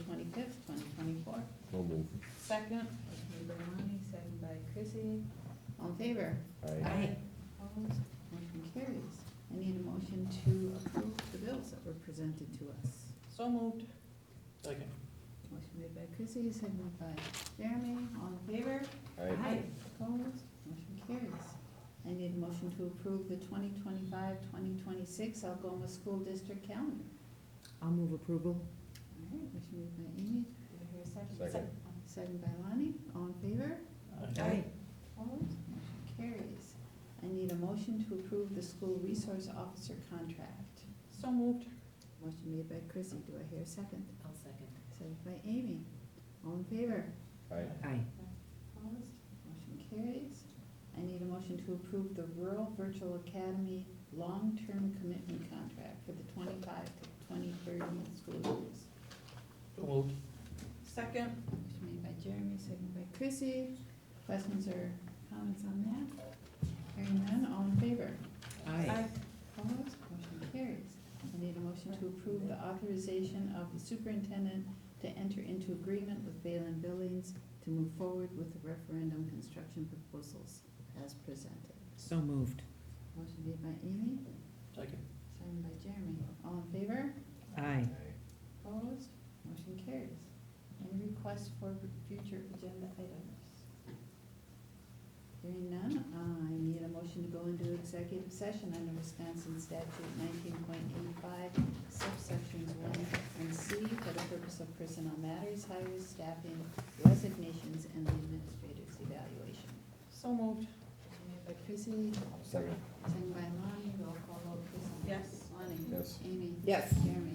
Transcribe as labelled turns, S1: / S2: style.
S1: Second,
S2: Motion made by Lonnie, second by Chrissy.
S3: All in favor?
S4: Aye.
S2: Opposed?
S3: Motion carries. I need a motion to approve the bills that were presented to us.
S1: so moved. Second.
S3: Motion made by Chrissy, seconded by Jeremy, all in favor?
S4: Aye.
S3: Opposed? Motion carries. I need a motion to approve the 2025-2026 Algoma School District calendar.
S5: I'll move approval.
S3: All right, motion made by Amy,
S2: Do I hear a second?
S4: Second.
S3: seconded by Lonnie, all in favor?
S1: Aye.
S3: Opposed? Motion carries. I need a motion to approve the school resource officer contract.
S1: So moved.
S3: Motion made by Chrissy, do I hear a second?
S5: I'll second.
S3: Seconded by Amy, all in favor?
S4: Aye.
S5: Aye.
S2: Opposed?
S3: Motion carries. I need a motion to approve the Rural Virtual Academy long-term commitment contract for the twenty-five to twenty-thirty school years.
S1: So moved. Second.
S3: Motion made by Jeremy, seconded by Chrissy. Questions or comments on that? Hearing none, all in favor?
S5: Aye.
S3: Opposed? Motion carries. I need a motion to approve the authorization of the superintendent to enter into agreement with Balin Billings to move forward with the referendum construction proposals as presented.
S5: So moved.
S3: Motion made by Amy,
S1: Second.
S3: seconded by Jeremy. All in favor?
S5: Aye.
S3: Opposed? Motion carries. Any requests for future agenda items? Hearing none, I need a motion to go into executive session under Wisconsin statute nineteen point eight five, subsections one and C, for the purpose of personnel matters, hires, staffing, resignations, and the administrator's evaluation.
S1: So moved.
S3: Motion made by Chrissy,
S4: Second.
S3: Second by Lonnie, roll call vote, please.
S1: Yes.
S3: Lonnie?
S4: Yes.
S3: Amy?
S5: Yes.
S3: Jeremy?